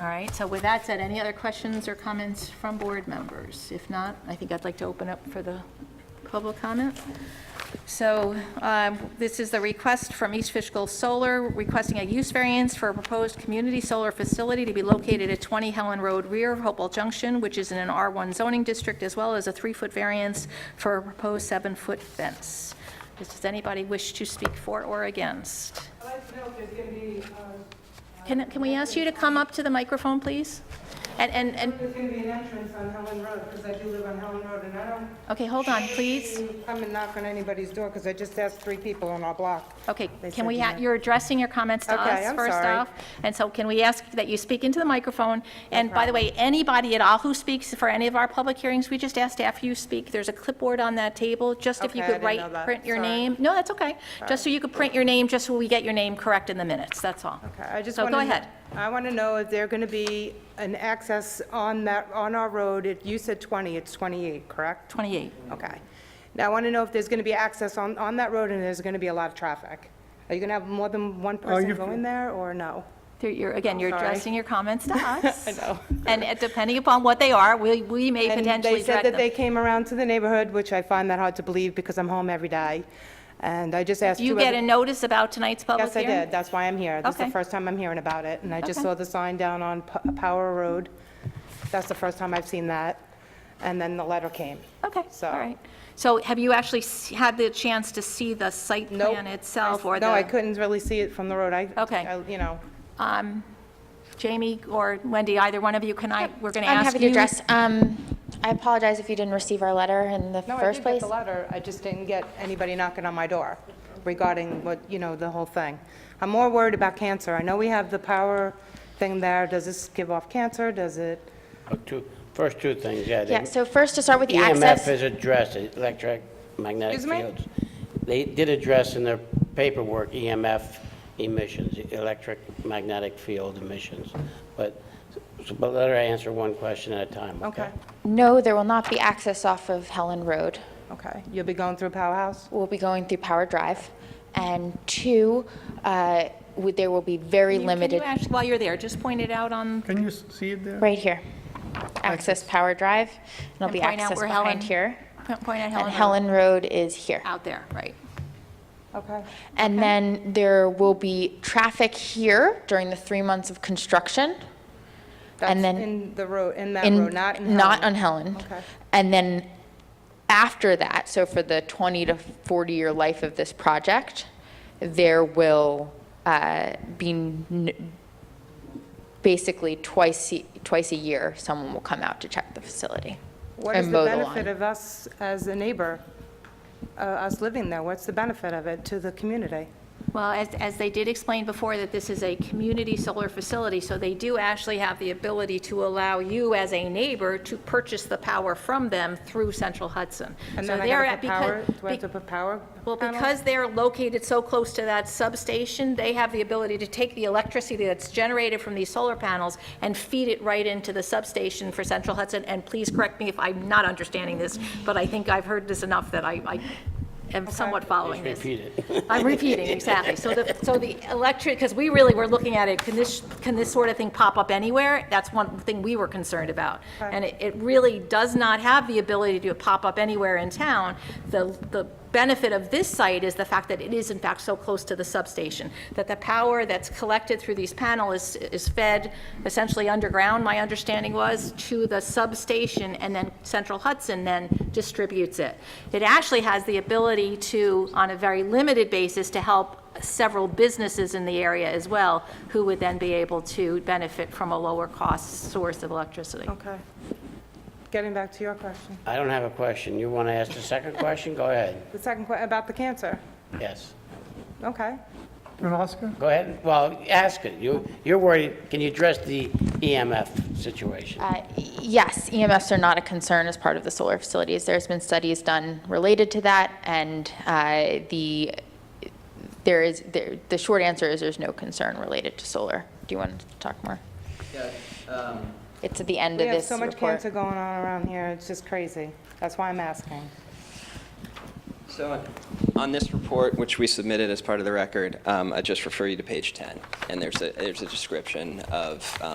All right, so with that said, any other questions or comments from board members? If not, I think I'd like to open up for the public comment. So um, this is the request from East Fishkill Solar requesting a use variance for a proposed community solar facility to be located at 20 Helen Road rear of Hopewell Junction, which is in an R1 zoning district, as well as a three-foot variance for a proposed seven-foot fence. Does anybody wish to speak for or against? I'd like to know if there's going to be, um, Can, can we ask you to come up to the microphone, please? And, and, and, there's going to be an entrance on Helen Road, because I do live on Helen Road, and I don't okay, hold on, please. come and knock on anybody's door, because I just asked three people on our block. Okay, They can we, said ha- no. you're addressing your comments to Okay, us I'm first sorry. off. And so can we ask that you speak into the microphone? And by the way, anybody at all who speaks for any of our public hearings, we just asked after you speak, there's a clipboard on that table, just if you Okay, I could didn't write, know that. print your Sorry. name. No, that's okay. Just so you could print your name, just so we get your name correct in the minutes, that's all. Okay, I just So want to... go ahead. I want to know if there going to be an access on that, on our road, If you said 20, it's 28, correct? 28. Okay. Now, I want to know if there's going to be access on, on that road, and there's going to be a lot of traffic. Are you going to have more than one person you've- going there, or no? There- You're, again, you're sorry. addressing your comments to us. I know. And uh, depending upon what they are, we, we may And potentially they direct them. said that they came around to the neighborhood, which I find that hard to believe because I'm home every day. And I just asked You whoever- get a notice about tonight's public Yes, I hearing? did. That's why I'm here. This is Okay. the first time I'm hearing about it. And I just Okay. saw the sign down on P- Power Road. That's the first time I've seen that. And then the letter came. Okay, So- all right. So have you actually s- had the chance to see the site Nope. plan itself or the? No, I couldn't really see it from the road. I, Okay. I- you know, um, Jamie or Wendy, either one of you, can I, we're going to ask you? I'm happy to address, um, I apologize if you didn't receive our letter in the no, I first did get place. the letter. I just didn't get anybody knocking on my door regarding what, you know, the whole thing. I'm more worried about cancer. I know we have the power thing there. Does this give off cancer? Does it? Oh, two- First two things, yeah. E the Yeah, so first to start with the EMF access. is addressed, electric magnetic Excuse me? fields. They did address in their paperwork EMF emissions, electric magnetic field emissions. But, so- but let her answer one question at a time, okay? Okay, No, there will not be access off of Helen Road. okay. You'll be going through Power House? We'll be going through Power Drive. And two, uh, would- there will be very limited, Can you actually, while you're there, just point it out on, Can you s- see it there? right here, access Power Drive. And There'll And be point out access where Helen- behind here. point out Helen. And Helen Road is here. Out there, right. Okay. And then there will be traffic here during the three months of construction. That's And then. in the road, in that In- road, not in Helen. on Helen. Okay. And then after that, so for the 20 to 40-year life of this project, there will uh, be n- basically twice, e- twice a year, someone will come out to check the facility What is and the mow the benefit lawn. of us as a neighbor, uh, us living there? What's the benefit of it to the community? Well, as, as they did explain before, that this is a community solar facility, so they do actually have the ability to allow you as a neighbor to purchase the power from them through Central Hudson. And So then I they're gotta at- put because- power, do I be- have to put power? Well, panels? because they're located so close to that substation, they have the ability to take the electricity that's generated from these solar panels and feed it right into the substation for Central Hudson. And please correct me if I'm not understanding this, but I think I've heard this enough that I I am somewhat following this. Repeat it. I'm repeating, exactly. So the, so the electric, because we really were looking at it, can this, can this sort of thing pop up anywhere? That's one thing we were concerned about. And it, it really does not have the ability to pop up anywhere in town. The, the benefit of this site is the fact that it is in fact so close to the substation, that the power that's collected through these panels is, is fed essentially underground, my understanding was, to the substation, and then Central Hudson then distributes it. It actually has the ability to, on a very limited basis, to help several businesses in the area as well, who would then be able to benefit from a lower-cost source of electricity. Okay. Getting back to your question, I don't have a question. You want to ask the second question? Go ahead. the second question about the cancer. Yes. Okay. You want to ask her? Go ahead. Well, ask it. You, you're worried, can you address the EMF situation? Uh, Yes, EMFs are not a concern as part of the solar facilities. There's been studies done related to that, and uh, the, there is, there- the short answer is there's no concern related to solar. Do you want to talk more? Yeah, um, It's at the end We of have this so report. much cancer going on around here, it's just crazy. That's why I'm asking. So on- on this report, which we submitted as part of the record, um, I just refer you to page 10, and there's a, there's a description of um,